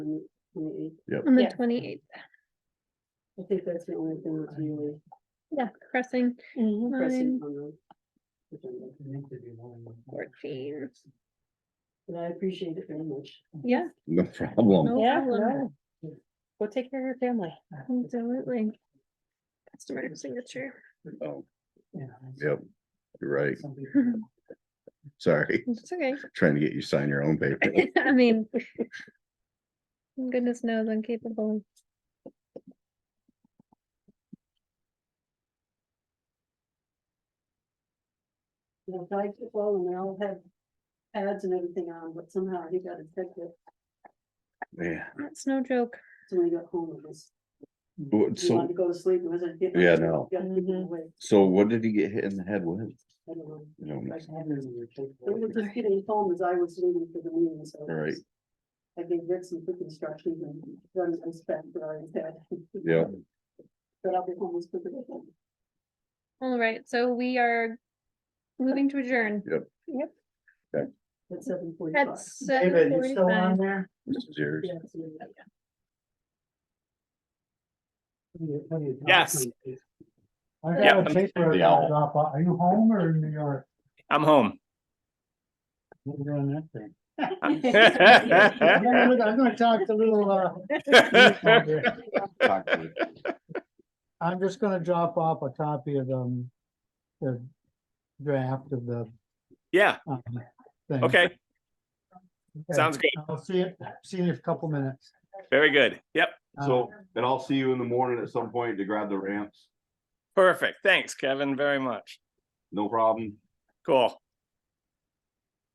on the Yes. twenty eighth. I think that's the only thing that's really Yeah, pressing pressing line on the. agenda. fourteen. And I appreciate it very much. Yeah, No problem. No Yeah, problem. no. Go take care of your family. absolutely. Customer signature. Oh, Yep, you're right. Sorry, It's okay. trying to get you to sign your own paper. I mean. Goodness knows I'm capable. of- The flags are falling, they all have pads and everything on, but somehow he got infected, Yeah, That's no joke. so when he got home, it was, But he wanted so, to go to sleep, it wasn't. getting up, yeah, no. Got to keep him Mhm. awake, So what did he get hit in the head with? I don't know. You don't know. They were just getting home as I was leaving for the meeting, so. it was- I gave Rick some quick instructions and got his respect for our dad. Yeah. But I'll be home as quick as I can. All right, so we are moving to adjourn At seven at forty-five. seven forty-five. there? This is yours. Yeah, it's really- Yes. I Yeah, got a I'm- paper the to owl. drop off. Are you home or in New York? I'm home. What are you doing that thing? I'm Talk gonna I'm gonna talk to little, uh, Peter. Talk to you. I'm just gonna drop off a copy of, um, the draft of the, Yeah, um, thing. okay, Okay. sounds good. I'll see you, see you in a couple minutes. Very good. Yep, Uh, So, and I'll see you in the morning at some point to grab the ramps. perfect. Thanks, Kevin, very much. No problem. Cool.